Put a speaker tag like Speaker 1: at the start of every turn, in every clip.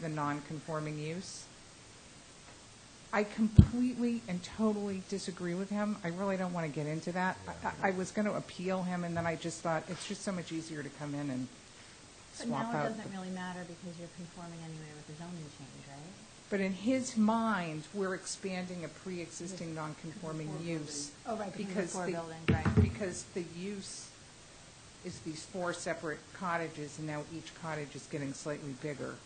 Speaker 1: the non-conforming use. I completely and totally disagree with him. I really don't want to get into that. I- I, I was going to appeal him, and then I just thought, it's just so much easier to come in and
Speaker 2: But now
Speaker 1: swap
Speaker 2: it
Speaker 1: out.
Speaker 2: doesn't really matter because you're conforming anyway with the zoning change, right?
Speaker 1: But in his mind, we're expanding a pre-existing non-conforming use.
Speaker 2: Oh, right, because of the four
Speaker 1: the-
Speaker 2: buildings, right.
Speaker 1: Because the use is these four separate cottages, and now each cottage is getting slightly bigger.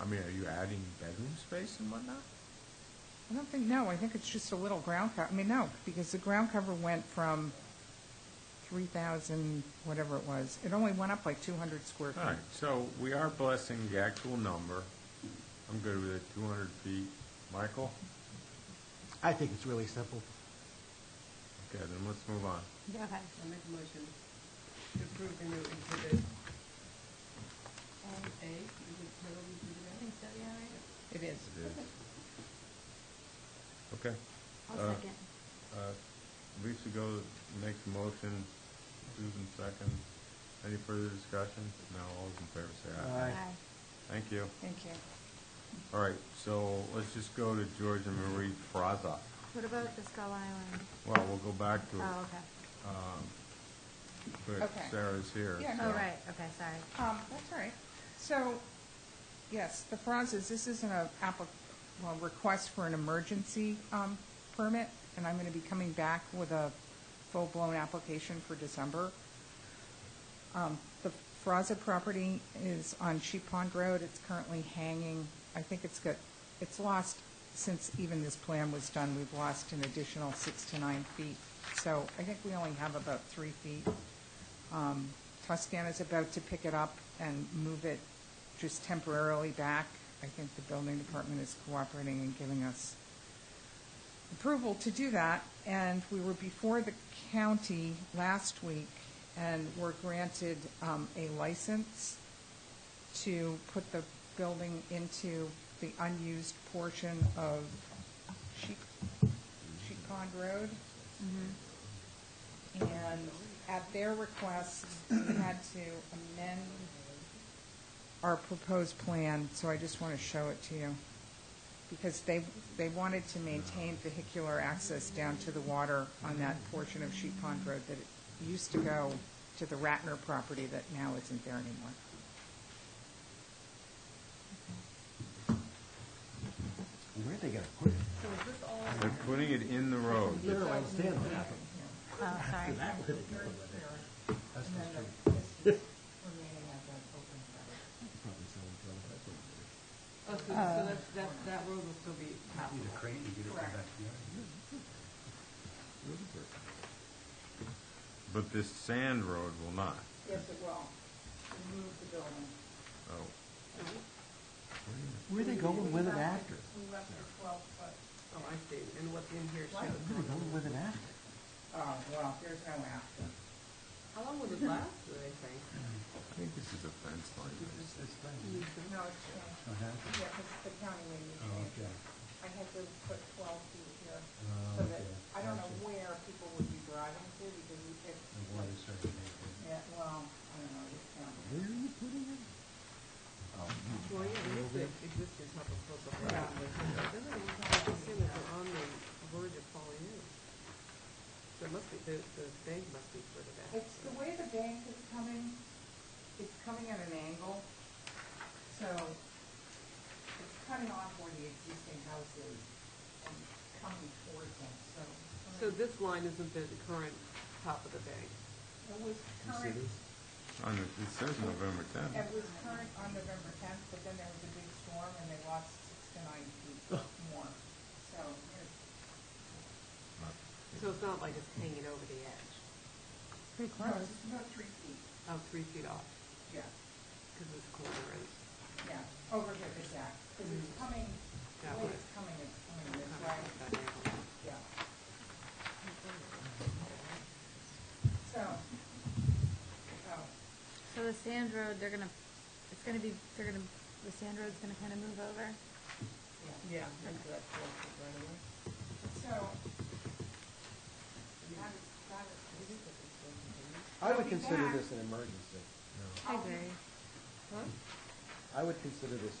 Speaker 3: I mean, are you adding bedroom space and whatnot?
Speaker 1: I don't think, no, I think it's just a little ground cover, I mean, no, because the ground cover went from three thousand, whatever it was, it only went up like two hundred square
Speaker 3: All right,
Speaker 1: feet.
Speaker 3: so we are blessing the actual number. I'm good with it, two hundred feet. Michael?
Speaker 4: I think it's really simple.
Speaker 3: Okay, then let's move on.
Speaker 2: Okay.
Speaker 5: I make a motion to approve the new exhibit Um, A, is it titled exhibit
Speaker 2: I
Speaker 5: A?
Speaker 2: think so, yeah,
Speaker 5: Uh,
Speaker 2: right?
Speaker 1: It is.
Speaker 3: It is. Okay,
Speaker 2: I'll
Speaker 3: Uh,
Speaker 2: second.
Speaker 3: uh, Lisa goes, makes a motion, Susan second. Any further discussion? No, all those in favor say aye.
Speaker 4: Aye.
Speaker 3: Thank you.
Speaker 1: Thank you.
Speaker 3: All right, so let's just go to George and Marie Fraza.
Speaker 2: What about the Skull Island?
Speaker 3: Well, we'll go back to it.
Speaker 2: Oh, okay.
Speaker 3: But
Speaker 1: Okay.
Speaker 3: Sarah's here.
Speaker 1: Yeah,
Speaker 2: Oh,
Speaker 3: so-
Speaker 2: right, okay, sorry.
Speaker 1: Um, that's all right. So, yes, the Franz is, this isn't a applic, well, request for an emergency, um, permit, and I'm gonna be coming back with a full-blown application for December. Um, the Franza property is on Sheep Pond Road. It's currently hanging, I think it's got, it's lost, since even this plan was done, we've lost an additional six to nine feet. So I think we only have about three feet. Um, Toscana's about to pick it up and move it just temporarily back. I think the building department is cooperating and giving us approval to do that, and we were before the county last week and were granted um, a license to put the building into the unused portion of Sheep, Sheep Pond Road. And at their request, we had to amend our proposed plan, so I just want to show it to you. Because they, they wanted to maintain vehicular access down to the water on that portion of Sheep Pond Road that it used to go to the Ratner property that now isn't there anymore.
Speaker 4: Where are they gonna put it?
Speaker 5: So is this all,
Speaker 3: They're putting it in the road.
Speaker 4: I don't understand what happened.
Speaker 2: Oh, sorry.
Speaker 4: That's not true. Probably selling drugs. That's what we do.
Speaker 5: oh, so, so that, that, that road will still be
Speaker 6: Need a
Speaker 5: passable?
Speaker 6: crane to get it from back to the yard.
Speaker 3: But this sand road will not.
Speaker 1: Yes, it will. Remove the building.
Speaker 3: Oh,
Speaker 4: Where are they going with it after?
Speaker 1: We left it twelve foot.
Speaker 5: Oh, I see, and what's in here
Speaker 4: Where
Speaker 5: shows.
Speaker 4: are they going with it after?
Speaker 1: Oh, well, there's no after.
Speaker 5: How long will it last, do they think?
Speaker 3: I think this is a fence line.
Speaker 4: It's, it's fine.
Speaker 1: No, it's,
Speaker 6: Oh, that's-
Speaker 1: yeah, because the county made me
Speaker 6: oh, okay.
Speaker 1: I had to put twelve feet here,
Speaker 6: Oh,
Speaker 1: so that,
Speaker 6: okay.
Speaker 1: I don't know
Speaker 6: Gotcha.
Speaker 1: where people would be driving to, because we could,
Speaker 6: The water's starting to make it.
Speaker 1: yeah, well, I don't know, it's, um,
Speaker 4: Where are you putting it?
Speaker 5: Well, yeah, it is the existing public program,
Speaker 1: Yeah.
Speaker 5: but doesn't it look like it's on the verge of falling in? So it must be, the, the bank must be further back.
Speaker 1: it's the way the bank is coming, it's coming at an angle, so it's cutting off where the existing house is and coming towards them, so. it's
Speaker 5: So
Speaker 1: coming-
Speaker 5: this line isn't the current top of the bank?
Speaker 1: It was current,
Speaker 3: On the, it says November tenth.
Speaker 1: it was current on November tenth, but then there was a big storm and they lost six to nine feet
Speaker 6: Oh.
Speaker 1: more, so it's
Speaker 5: So it's not like it's hanging over the edge,
Speaker 1: Pretty close. It's about three feet,
Speaker 5: oh, three feet off,
Speaker 1: yeah,
Speaker 5: because it's corner and,
Speaker 1: yeah, over here, exact, because it's coming, the
Speaker 5: That
Speaker 1: way
Speaker 5: way.
Speaker 1: it's coming, it's coming this
Speaker 5: kind
Speaker 1: way,
Speaker 5: of like that angle.
Speaker 1: yeah. So, oh,
Speaker 2: So the sand road, they're gonna, it's gonna be, they're gonna, the sand road's gonna kind of move over?
Speaker 5: Yeah, into that four foot right away.
Speaker 1: so, that is, that is.
Speaker 4: I
Speaker 1: I'll
Speaker 4: would
Speaker 1: be
Speaker 4: consider
Speaker 1: back.
Speaker 4: this an emergency.
Speaker 2: I agree.
Speaker 4: I would consider this